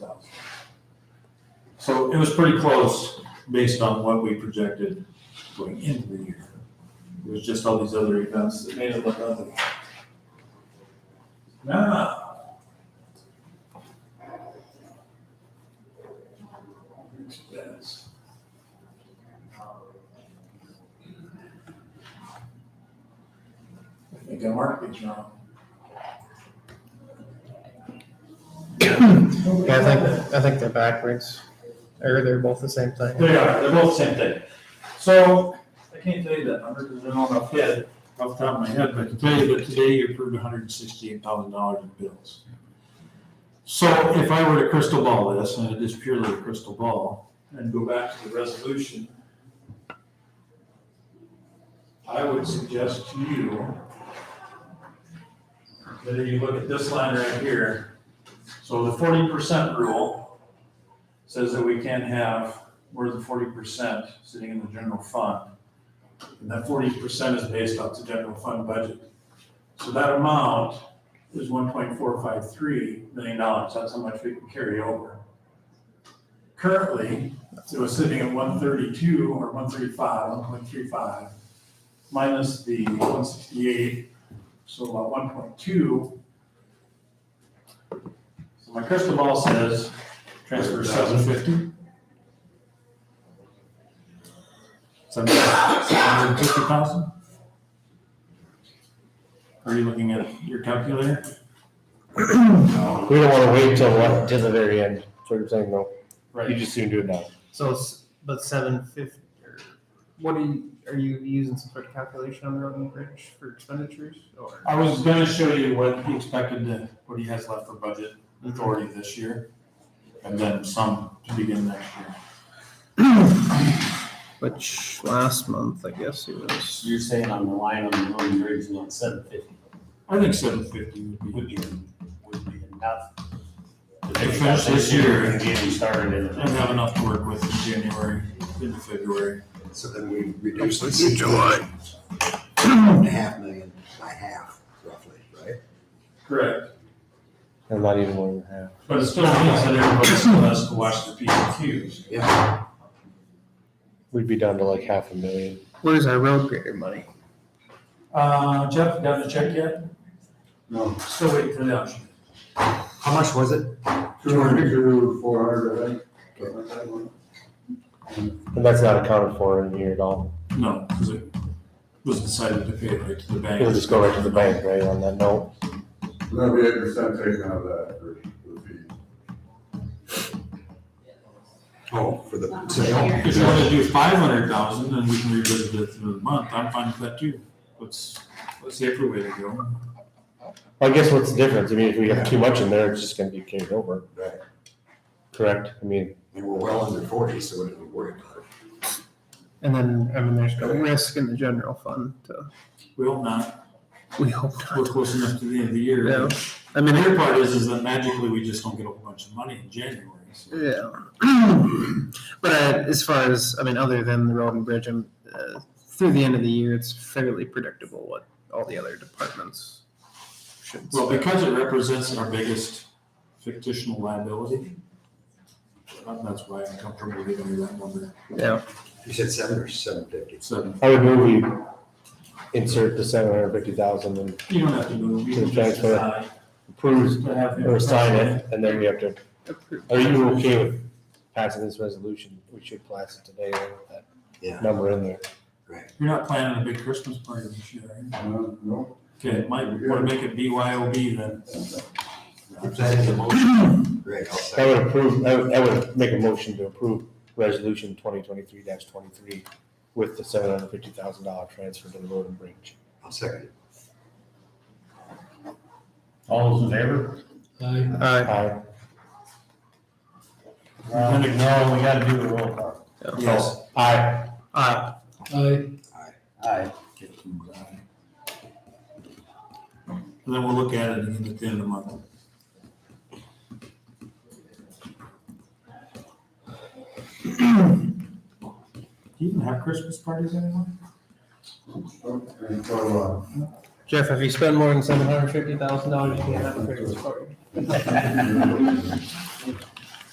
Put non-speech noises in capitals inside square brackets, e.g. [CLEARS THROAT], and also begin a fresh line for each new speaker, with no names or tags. thousand.
So it was pretty close based on what we projected going into the year. It was just all these other events that made it look ugly. Nah,
expense.
I think I marked these wrong.
Yeah, I think, I think they're backwards, or they're both the same thing.
They are, they're both the same thing. So, I can't tell you that number because I don't know head, off the top of my head, but I can tell you that today you approved hundred and sixty-eight thousand dollars in bills. So if I were to crystal ball this, and it is purely a crystal ball, and go back to the resolution, I would suggest to you that you look at this line right here. So the forty percent rule says that we can have more than forty percent sitting in the general fund. And that forty percent is based off the general fund budget. So that amount is one point four five three million dollars, that's how much we can carry over. Currently, it was sitting at one thirty-two or one thirty-five, one point three five, minus the one sixty-eight, so about one point two. So my crystal ball says, transfer seven fifty. Seven hundred fifty thousand? Are you looking at your calculator?
We don't wanna wait till what, till the very end, so you're saying no, you just soon do it now.
So, it's- but seven fifty, or what are you, are you using some sort of calculation on the road and bridge for expenditures, or?
I was gonna show you what he expected to, what he has left for budget authority this year, and then some to begin next year.
Which, last month, I guess it was.
You're saying on the line on the road and bridge, not seven fifty
I think seven fifty would
would
be,
be, would be enough.
They finish this year.
And get you started in.
I have enough to work with in January, into February.
So then we reduce this in July. Half million by half, roughly, right?
Correct.
And not even more than half.
But it still means that everybody still has to watch the P and Qs.
Yeah.
We'd be down to like half a million.
Where's our road grader money?
Uh, Jeff, got the check yet?
No.
Still waiting for the option.
How much was it?
Two hundred to four hundred, I think. something like that one.
And that's not accounted for in here at all.
No, because it was decided to pay it right to the bank.
It'll just go right to the bank, right, on that note?
That'll be eight percent taken out of that for the fee.
Oh, for the
If you want to do five hundred thousand, then we can revisit it through the month, I'm fine with that too. What's, what's the appropriate way to go?
I guess what's the difference? I mean, if we have too much in there, it's just gonna be carried over.
Right.
Correct? I mean,
And we're well under forty, so we don't need to worry about it.
And then, I mean, there's no risk in the general fund, so
We hope not,
we hope
we're
not.
close enough to the end of the year.
Yeah.
The
I mean,
weird part is, is that magically we just don't get a whole bunch of money in January. so.
Yeah. [CLEARS THROAT] But uh, as far as, I mean, other than the road and bridge, um, uh, through the end of the year, it's fairly predictable what all the other departments should.
Well,
spend.
because it represents our biggest fictional liability, that's why I'm comfortable giving you that number,
Yeah,
You said seven or seven fifty?
seven.
I would move we insert the seven hundred fifty thousand and
You don't have to move, you can just
Exactly.
decide
approve
to have. him-
or sign it, and then we have to,
approved.
are you okay with passing this resolution? We should pass it today then, with that
Yeah,
number in there.
You're not planning a big Christmas party this year, are you?
Uh, No,
Okay, might want to make it BYOB then.
if that is a motion, great, I'll
I
second.
would approve, I would, I would make a motion to approve resolution twenty twenty-three twenty-three with the seven hundred fifty thousand dollar transfer to the road and bridge.
I'll second it.
All those in favor?
Uh,
Aye.
No, we gotta do the roll call.
Yes.
Aye.
uh,
Aye.
And then we'll look at it again at the end of the month. [CLEARS THROAT] Do you even have Christmas parties anymore?
and so, uh,
Jeff, if you spend more than seven hundred fifty thousand dollars, you can't have a Christmas party.